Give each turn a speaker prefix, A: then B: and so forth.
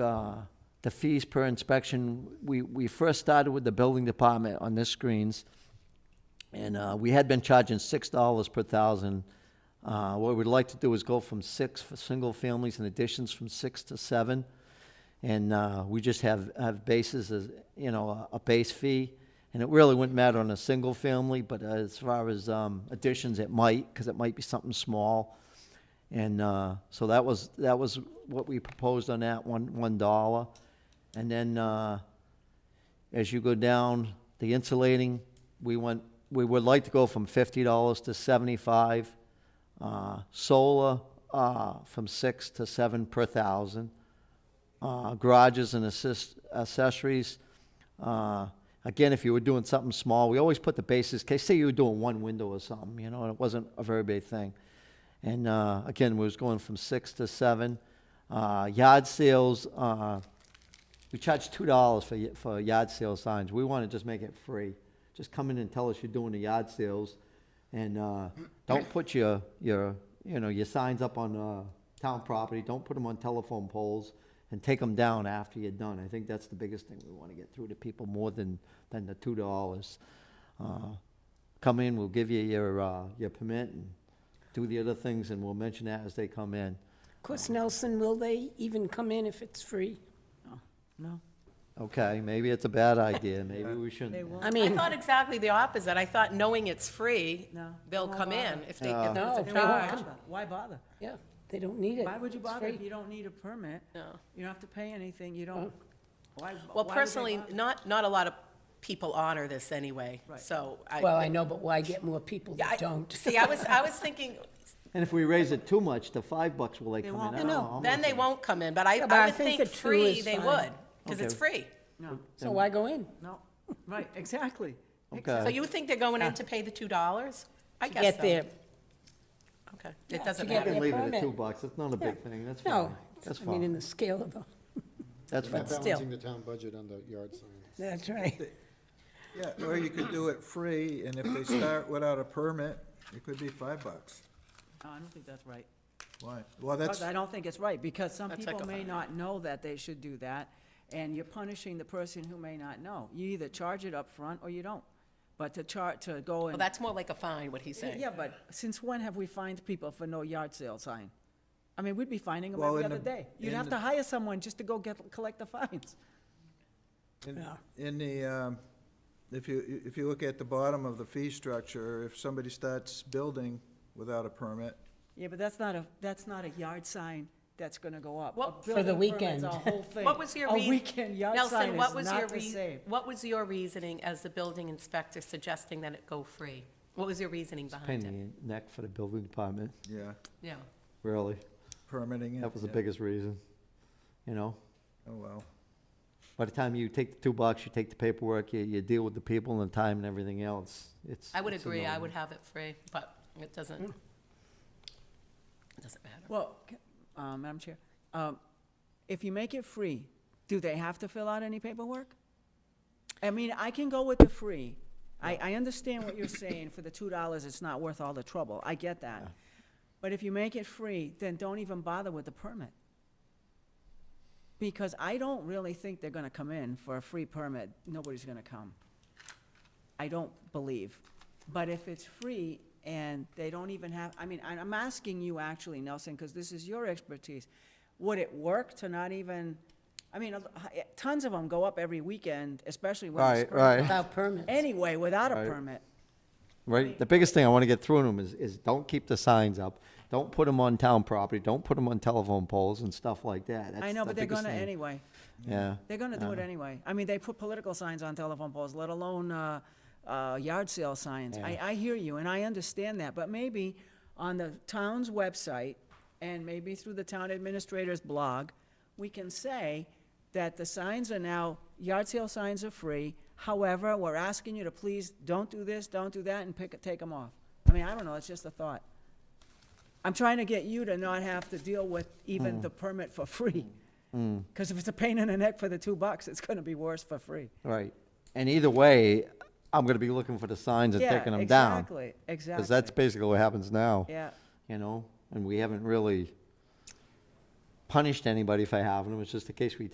A: uh, the fees per inspection, we, we first started with the building department on the screens. And uh, we had been charging six dollars per thousand. Uh, What we'd like to do is go from six for single families and additions from six to seven. And uh, we just have, have bases as, you know, a a base fee. And it really wouldn't matter on a single family, but as far as um, additions, it might, because it might be something small. And uh, so that was, that was what we proposed on that, one, one dollar. And then uh, as you go down, the insulating, we went, we would like to go from fifty dollars to seventy-five. Uh, solar, uh, from six to seven per thousand. Uh, garages and assist, accessories, uh, again, if you were doing something small, we always put the basis, case, say you were doing one window or something, you know, and it wasn't a very big thing. And, uh, again, we was going from six to seven. Uh, yard sales, uh, we charge two dollars for, y- for yard sale signs. We want to just make it free. Just come in and tell us you're doing the yard sales, and uh, don't put your your you know your signs up on uh, town property. Don't put them on telephone poles, and take them down after you're done. I think that's the biggest thing we want to get through to people more than than the two dollars. Uh, come in, we'll give you your uh, your permit and do the other things, and we'll mention that as they come in.
B: Of course, Nelson, will they even come in if it's free?
C: No.
A: Okay, maybe it's a bad idea. Maybe we shouldn't.
C: They won't.
B: I
D: I
B: mean,
D: thought exactly the opposite. I thought knowing it's free,
C: No.
D: they'll
C: Why
D: come in
C: bother?
D: if they,
A: No.
D: if there's
B: No,
D: a
B: they won't
C: Why
D: charge.
C: bother? Why bother?
B: yeah, they don't need it.
C: Why would you
B: It's
C: bother if
B: free.
C: you don't need a permit?
D: No.
C: You don't have to pay anything, you don't, why?
D: Well,
C: why would they
D: personally,
C: bother?
D: not, not a lot of people honor this anyway, so
B: Well,
D: I.
B: I know, but why get more people
D: I-
B: that don't?
D: See, I was, I was thinking,
A: And if we raise it too much to five bucks, will they
C: They
A: come
C: won't.
A: in? I don't
B: No, no.
A: know how
D: then
A: much
D: they won't come in, but I,
B: Yeah, but
D: I
B: I
D: would
B: think
D: think
B: the two
D: free
B: is
D: they
B: fine.
D: would, because it's
A: Okay.
D: free.
C: No,
B: So why go in?
C: no, right, exactly.
A: Okay.
D: So you think they're going in to pay the two dollars? I guess so.
B: Uh, Get there.
D: Okay,
B: Yeah,
D: it doesn't
B: to get
A: You
D: matter.
A: can
B: Yeah,
A: leave it at
B: permit.
A: two bucks, it's not a big
B: Yeah.
A: thing, that's fine,
B: No,
A: that's
B: I mean, in
A: fine,
B: the scale of the,
A: that's fine.
E: Not
B: still.
E: balancing the town budget on the yard sign.
B: that's right.
F: Yeah, or you could do it free, and if they start without a permit, it could be five bucks.
C: No, I don't think that's right.
F: Why? Well, that's,
C: Because I don't think it's right, because some
D: That's like
C: people
D: a-
C: may not know that they should do that, and you're punishing the person who may not know. You either charge it up front or you don't. But to char, to go
D: Well,
C: and.
D: that's more like a fine, what he's saying.
C: Yeah, but since when have we fined people for no yard sale sign? I mean, we'd be fining them
F: Well,
C: every
F: in
C: other
F: the-
C: day. You'd
F: in
C: have
F: the-
C: to hire someone just to go get, collect the fines.
F: in- in the, um, if you, if you look at the bottom of the fee structure, if somebody starts building without a permit,
C: Yeah, but that's not a, that's not a yard sign that's gonna go up. A
D: What-
B: For the
C: building permit's
B: weekend.
C: a whole thing.
D: What was your reason?
C: A weekend yard sign is not the same.
D: What was your reasoning as the building inspector suggesting that it go free? What was your reasoning
A: Pain
D: behind it?
A: in the neck for the building department,
F: yeah,
D: Yeah,
A: really,
F: permitting it.
A: that was the
F: yeah.
A: biggest reason, you know?
F: Oh, well,
A: By the time you take the two bucks, you take the paperwork, you, you deal with the people and the time and everything else, it's.
D: I would
A: it's
D: agree, I
A: annoying.
D: would have it free, but it doesn't,
C: Hmm.
D: it doesn't matter.
C: Well, c- uh, Madam Chair, um, if you make it free, do they have to fill out any paperwork? I mean, I can go with the free. I, I understand what you're saying, for the two dollars, it's not worth all the trouble, I get that. But if you make it free, then don't even bother with the permit. Because I don't really think they're gonna come in for a free permit, nobody's gonna come. I don't believe. But if it's free and they don't even have, I mean, I- I'm asking you actually, Nelson, because this is your expertise. Would it work to not even, I mean, a- eh, tons of them go up every weekend, especially when it's
A: Right, right,
B: Without permits.
C: Anyway, without a
A: Right.
C: permit.
A: right, the biggest thing I wanna get through to them is, is don't keep the signs up, don't put them on town property, don't put them on telephone poles and stuff like that,
C: I
A: That's
C: know,
A: the
C: but they're
A: biggest
C: gonna
A: thing.
C: anyway.
A: Yeah.
C: They're gonna do it anyway. I mean, they put political signs on telephone poles, let alone, uh, uh, yard sale signs. I, I hear you, and I understand that, but maybe on the town's website, and maybe through the town administrator's blog, we can say that the signs are now, yard sale signs are free. However, we're asking you to please don't do this, don't do that, and pick, take them off. I mean, I don't know, it's just a thought. I'm trying to get you to not have to deal with even the permit for free. Because if it's a pain in the neck for the two bucks, it's gonna be worse for free.
A: Right. And either way, I'm gonna be looking for the signs and
C: Yeah,
A: taking them down.
C: Exactly,
A: Because that's
C: exactly.
A: basically what happens now,
C: Yeah,
A: you know? And we haven't really punished anybody for having them. It's just a case we